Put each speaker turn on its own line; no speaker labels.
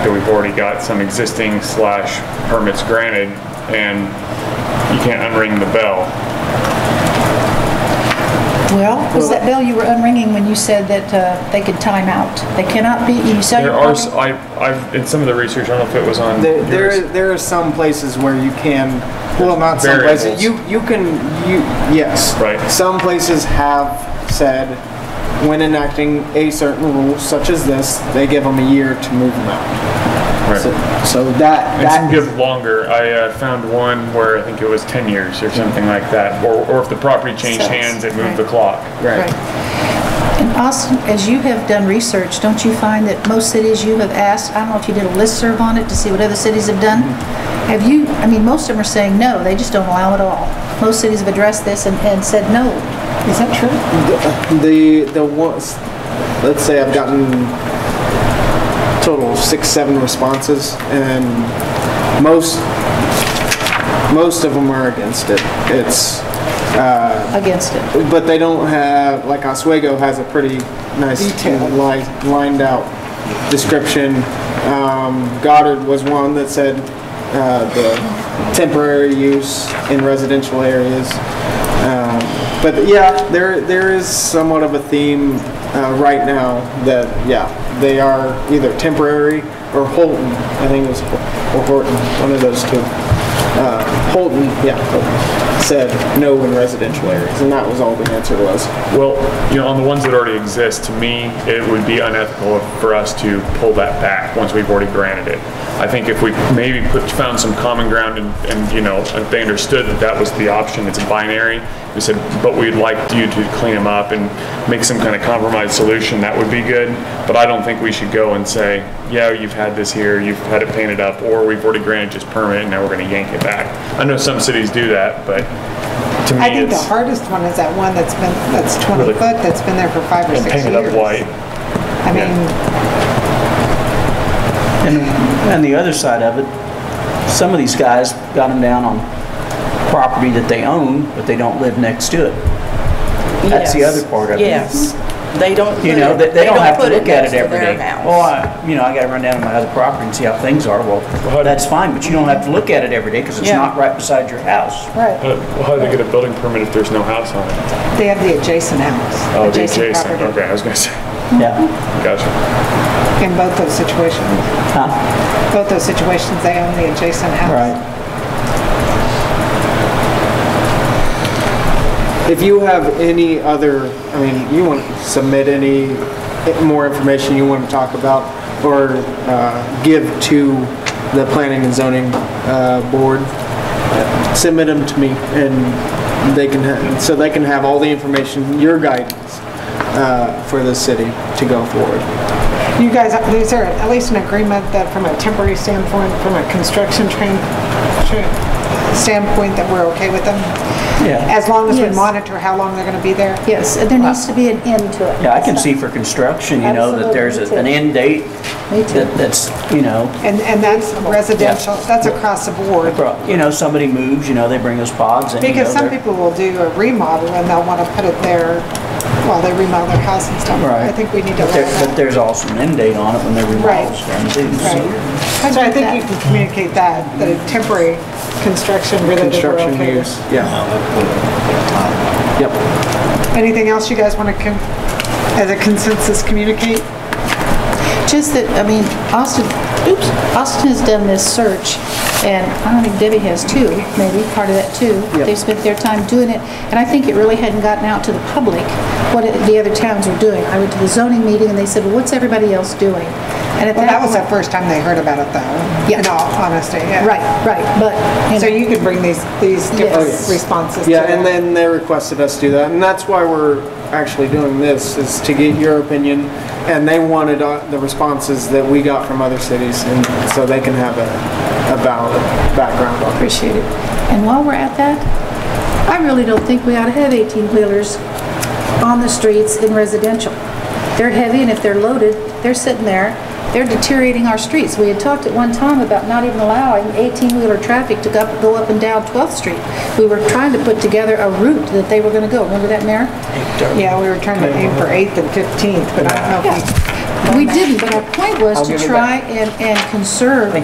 So We've already got some existing slash permits granted, and you can't unring the bell.
Well, was that bell you were unringing when you said that uh, they could time out? They cannot be, you said.
There are, s- I, have in some of the research, I don't know if it was on
There, there,
yours.
is- there are some places where you can, well, not some places,
Variables.
you, you can, you, yes.
Right.
Some places have said, when enacting a certain rule such as this, they give them a year to move them out.
Right.
So, so that,
And some
that,
give longer. I uh, found one where I think it was 10 years or something like that, or, or if the property changed
Sucks.
hands, it moved the
Right.
clock.
Right.
right.
And Austin, as you have done research, don't you find that most cities you have asked, I don't know if you did a listserv on it to see what other cities have done?
Mm-hmm.
Have you, I mean, most of them are saying no, they just don't allow it all. Most cities have addressed this and, and said no. Is that true?
The, the ones, let's say I've gotten total of six, seven responses, and most, most of them are against it. It's,
Against it?
But they don't have, like Oswego has a pretty nice li- lined out description. Um, Goddard was one that said uh, the temporary use in residential areas. Um, but yeah, there there is somewhat of a theme uh, right now that yeah they are either temporary or Holton. I think it was Ho- or Horton, one of those two. Uh, Holton, yeah, Holton, said no in residential areas, and that was all the answer was.
Well, you know, on the ones that already exist, to me, it would be unethical for us to pull that back once we've already granted it. I think if we maybe put, found some common ground and, and, you know, if they understood that that was the option, it's binary, we said, but we'd like you to clean them up and make some kind of compromise solution, that would be good. But I don't think we should go and say, yeah, you've had this here, you've had it painted up, or we've already granted this permit and now we're gonna yank it back. I know some cities do that, but to
I
me,
think the
it's
hardest one is that one that's been, that's 20
Really?
foot, that's been there for five or
and
six years.
painted up white.
I
yeah.
mean,
And the other side of it, some of these guys got them down on property that they own, but they don't live next to it. That's the
Yes.
other part of it.
Yes, they don't put
You know,
it-
they, they don't have to
put
look at
next
it
to
every
their
day.
house.
Well, I, you know, I gotta run down to my other property and see how things are. Well, that's fine, but you don't have to look at it every day because it's
Yeah.
not right beside your house.
right,
Uh, well, How do they get a building permit if there's no house on it?
they have the adjacent house.
Oh, the adjacent,
property
okay, I was gonna say,
Yeah.
gotcha.
In both those situations,
Huh?
both those situations, they own the adjacent house.
Right.
If you have any other, I mean, you want to submit any more information you want to talk about or uh, give to the planning and zoning uh, board, submit them to me and they can, ha- so they can have all the information, your guidance uh, for the city to go forward.
You guys, is there at least an agreement that from a temporary standpoint, from a construction train, tra- standpoint, that we're okay with them?
Yeah.
As long as we
Yes.
monitor how long they're gonna be there?
Yes, and there needs to be an end to it.
Yeah, I can see for construction, you know, that there's a- an end date
Me too.
that, that's, you know,
And, and that's residential, that's across the board.
you know, somebody moves, you know, they bring us pods and, you know,
Because some
they're-
people will do a remodel and they'll want to put it there while they remodel their house and stuff.
Right.
I think we need to
But
allow
there, but
that.
there's also an end date on it when they remodel stuff too. so-
Right. So I think you can communicate that, that a temporary construction related we're
Construction
okay
use,
with.
yeah. Yep.
Anything else you guys want to, as a consensus, communicate?
Just that, I mean, Austin, oops, Austin has done this search, and I don't think Debbie has too, maybe, part of that too.
Yep.
They spent their time doing it, and I think it really hadn't gotten out to the public what it- the other towns were doing. I went to the zoning meeting, and they said, well, what's everybody else doing? And at
Well, that
that
was the
point...
first time they heard about it though,
Yeah.
in all honesty. yeah.
Right, right, but... you
So
know,
you could bring these, these different
Yes.
responses to
Yeah, and
that.
then they requested us to do that, and that's why we're actually doing this, is to get your opinion. And they wanted uh, the responses that we got from other cities, and so they can have a, a valid background on it.
appreciate it. And while we're at that, I really don't think we ought to have 18-wheelers on the streets in residential. They're heavy, and if they're loaded, they're sitting there, they're deteriorating our streets. We had talked at one time about not even allowing 18-wheeler traffic to go up- go up and down 12th Street. We were trying to put together a route that they were going to go. Remember that, Mayor?
Yeah, we were trying to aim for 8th and 15th, but I don't know if we
Yeah. We didn't, but our point was
I'll
to
give it
try and, and conserve